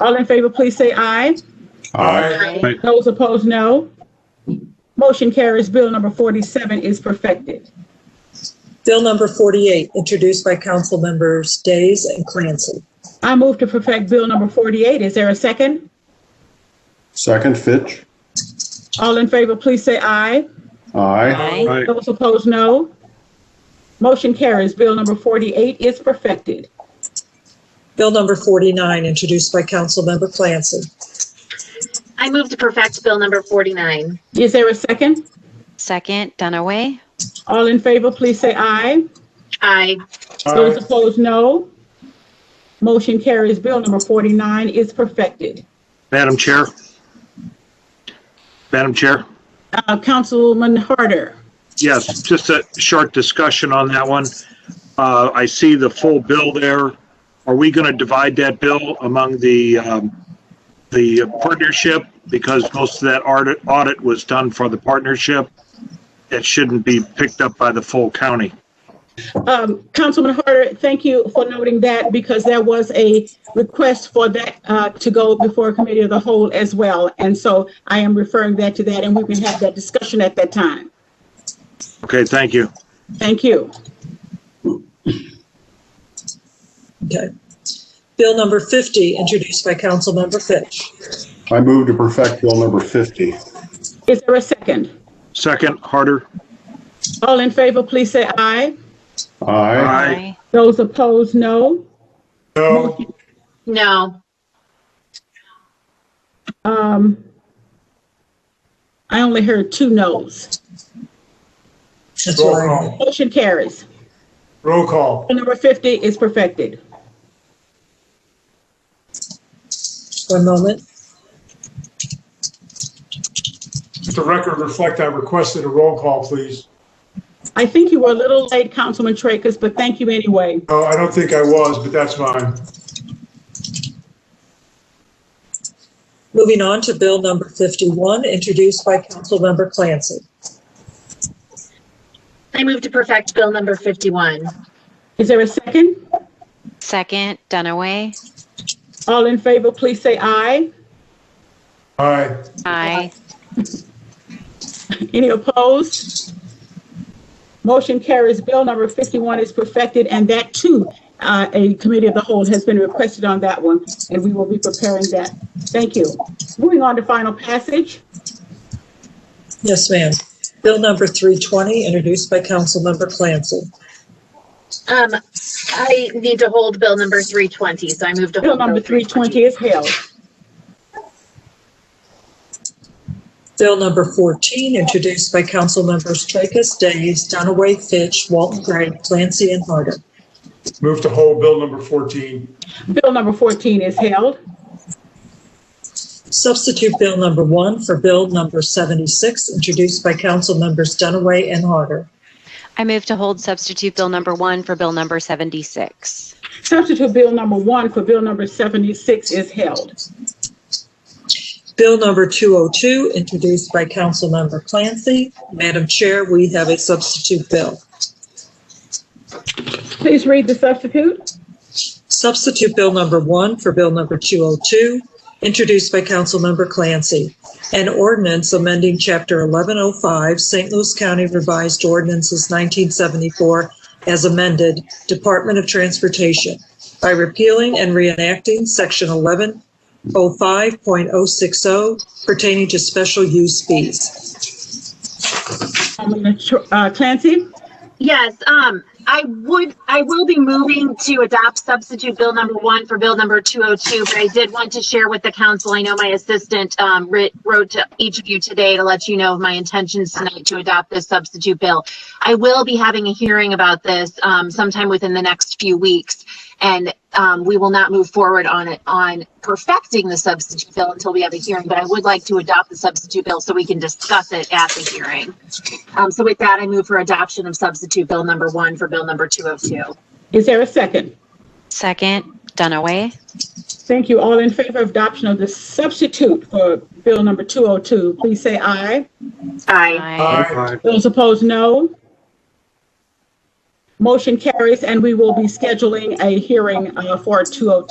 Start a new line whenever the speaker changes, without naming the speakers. All in favor, please say aye.
Aye.
Those opposed, no. Motion carries. Bill number 47 is perfected.
Bill number 48, introduced by council members Days and Clancy.
I move to perfect Bill number 48. Is there a second?
Second, Fitch.
All in favor, please say aye.
Aye.
Aye.
Those opposed, no. Motion carries. Bill number 48 is perfected.
Bill number 49, introduced by council member Clancy.
I move to perfect Bill number 49.
Is there a second?
Second, Dunaway.
All in favor, please say aye.
Aye.
Those opposed, no. Motion carries. Bill number 49 is perfected.
Madam Chair. Madam Chair,
Uh, Councilman Harder.
yes, just a short discussion on that one. Uh, I see the full bill there. Are we going to divide that bill among the, um, the partnership? Because most of that audit, audit was done for the partnership. It shouldn't be picked up by the full county.
Um, Councilman Harder, thank you for noting that because there was a request for that uh, to go before a committee of the whole as well. And so I am referring that to that and we can have that discussion at that time.
Okay, thank you.
Thank you.
Okay. Bill number 50, introduced by council member Fitch.
I move to perfect Bill number 50.
Is there a second?
Second, Harder.
All in favor, please say aye.
Aye.
Aye.
Those opposed, no.
No.
Um, I only heard two noes.
That's
Roll
what I
call.
Motion carries.
Roll call.
Bill number 50 is perfected.
One moment.
Does the record reflect I requested a roll call, please?
I think you were a little late, Councilman Tracus, but thank you anyway.
No, I don't think I was, but that's fine.
Moving on to bill number 51, introduced by council member Clancy.
I move to perfect Bill number 51.
Is there a second?
Second, Dunaway.
All in favor, please say aye.
Aye.
Aye.
Any opposed? Motion carries. Bill number 51 is perfected, and that too, uh, a committee of the whole has been requested on that one, and we will be preparing that. Thank you. Moving on to final passage.
Yes, ma'am. Bill number 320, introduced by council member Clancy.
Um, I need to hold Bill number 320, so I move to
Bill
hold.
number 320 is held.
Bill number 14, introduced by council members Tracus, Days, Dunaway, Fitch, Walton Gray, Clancy, and Harder.
Move to hold Bill number 14.
Bill number 14 is held.
Substitute Bill number 1 for Bill number 76, introduced by council members Dunaway and Harder.
I move to hold substitute bill number one for bill number 76.
Substitute Bill number 1 for Bill number 76 is held.
Bill number 202, introduced by council member Clancy. Madam Chair, we have a substitute bill.
Please read the substitute.
Substitute Bill number 1 for Bill number 202, introduced by council member Clancy. An ordinance amending Chapter 1105, St. Louis County Revised Ordinances 1974, as amended, Department of Transportation, by repealing and reenacting Section 1105.060 pertaining to special use fees.
Councilman uh, Clancy?
Yes, um, I would, I will be moving to adopt substitute bill number one for bill number 202, but I did want to share with the council, I know my assistant, um, writ, wrote to each of you today to let you know of my intentions tonight to adopt this substitute bill. I will be having a hearing about this, um, sometime within the next few weeks. And, um, we will not move forward on it, on perfecting the substitute bill until we have a hearing, but I would like to adopt the substitute bill so we can discuss it at the hearing. Um, so with that, I move for adoption of substitute bill number one for bill number 202.
Is there a second?
Second, Dunaway.
Thank you. All in favor of adoption of the substitute for Bill number 202, please say aye.
Aye.
Aye.
Those opposed, no. Motion carries, and we will be scheduling a hearing uh, for 202.